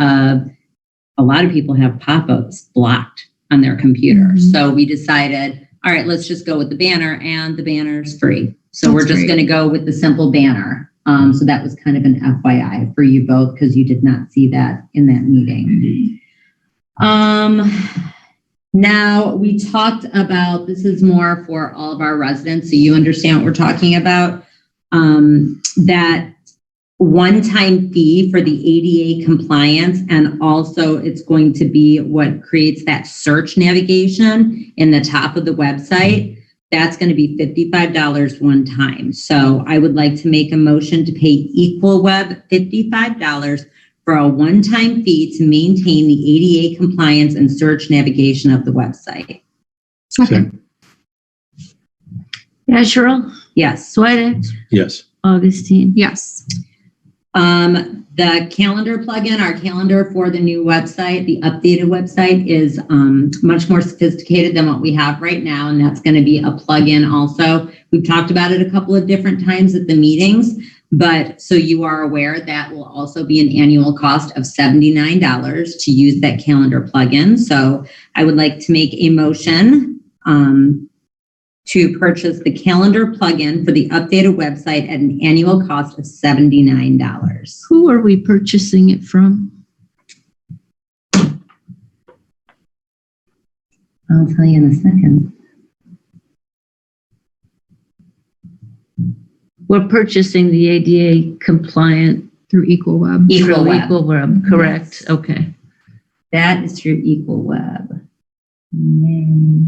uh, a lot of people have pop-ups blocked on their computer. Mhm. So we decided, all right, let's just go with the banner and the banner's free. So we're That's just great. going to go with the simple banner. Um, so that was kind of an FYI for you both because you did not see that in that meeting. Um, now we talked about this is more for all of our residents, so you understand what we're talking about. Um, that one-time fee for the ADA compliance, and also it's going to be what creates that search navigation in the top of the website. That's going to be fifty-five dollars one time. So I would like to make a motion to pay Equal Web fifty-five dollars for a one-time fee to maintain the ADA compliance and search navigation of the website. Second. Asherle, Yes. Sweattick, Yes. Augustine. Yes. Um, the calendar plugin, our calendar for the new website, the updated website is um, much more sophisticated than what we have right now, and that's going to be a plugin also. We've talked about it a couple of different times at the meetings, but so you are aware, that will also be an annual cost of $79 to use that calendar plugin. So I would like to make a motion um, to purchase the calendar plugin for the updated website at an annual cost of $79. Who are we purchasing it from? I'll tell you in a second. We're purchasing the ADA compliant. Through Equal Web. Equal through Web. Equal Web, correct, okay. That is through Equal Web. Yay.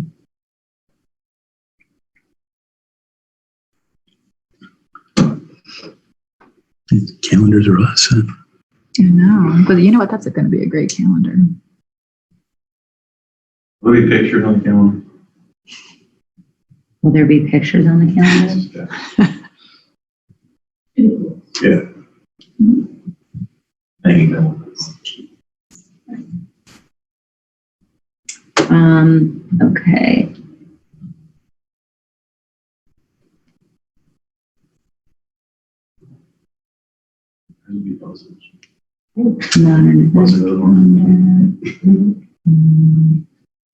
Calendars are awesome. I know. But you know what? That's going to be a great calendar. Will be pictured on the calendar. Will there be pictures on the calendar? Yeah. Thank you, Bill. Um, okay. It'll be posted. Modern Posted the other one.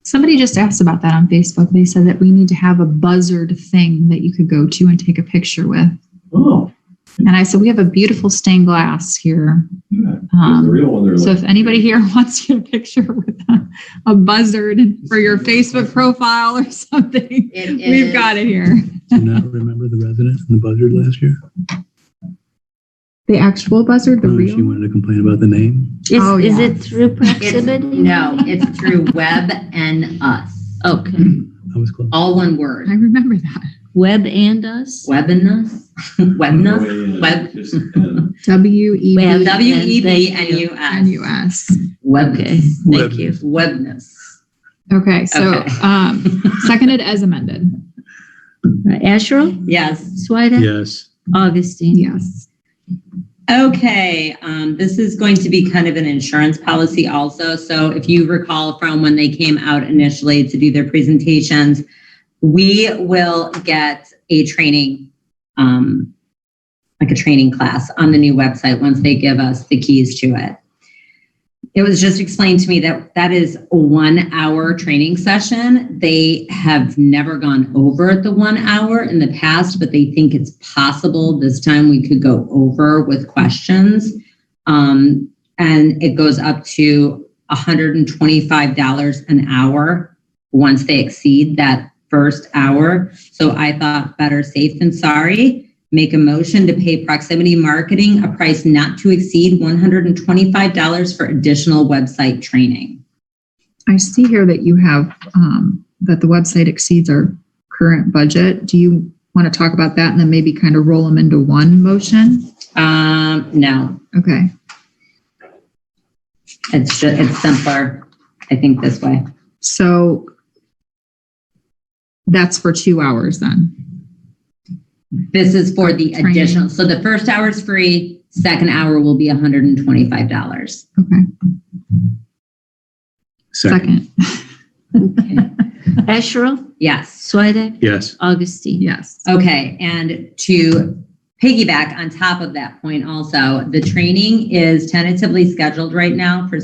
Somebody just asked about that on Facebook. They said that we need to have a buzzard thing that you could go to and take a picture with. Oh, And I said, we have a beautiful stained glass here. yeah. The Um, real one there. so if anybody here wants to get a picture with a, a buzzard for your Facebook profile or something, we've got it here. Do you not remember the resident and the buzzard last year? The actual buzzard, Oh, She wanted to complain about the name. Is, Oh, is yeah. it through proximity? No, it's through Web and Us. Okay, I was close. All one I word. remember that. Web and us? Web and Us? Web and Us? Web. uh, W E Web. B W E B Thank N you. U E N S. U S. Okay, Webness. thank you. Webness. Okay, so Okay. um, seconded as amended. Asherle, Yes. Sweattick, Yes. Augustine. Yes. Okay, um, this is going to be kind of an insurance policy also. So if you recall from when they came out initially to do their presentations, we will get a training, um, like a training class on the new website once they give us the keys to it. It was just explained to me that that is a one hour training session. They have never gone over the one hour in the past, but they think it's possible this time we could go over with questions. Um, and it goes up to $125 an hour once they exceed that first hour. So I thought better safe than sorry. Make a motion to pay proximity marketing a price not to exceed $125 for additional website training. I see here that you have, um, that the website exceeds our current budget. Do you want to talk about that and then maybe kind of roll them into one motion? Um, no, Okay, it's just, it's simpler, I think this way. so that's for two hours then. This is for the Training. additional, so the first hour is free, second hour will be $125. Okay, second. Asherle, Yes. Sweattick, Yes. Augustine. Yes. Okay, and to piggyback on top of that point also, the training is tentatively scheduled right now for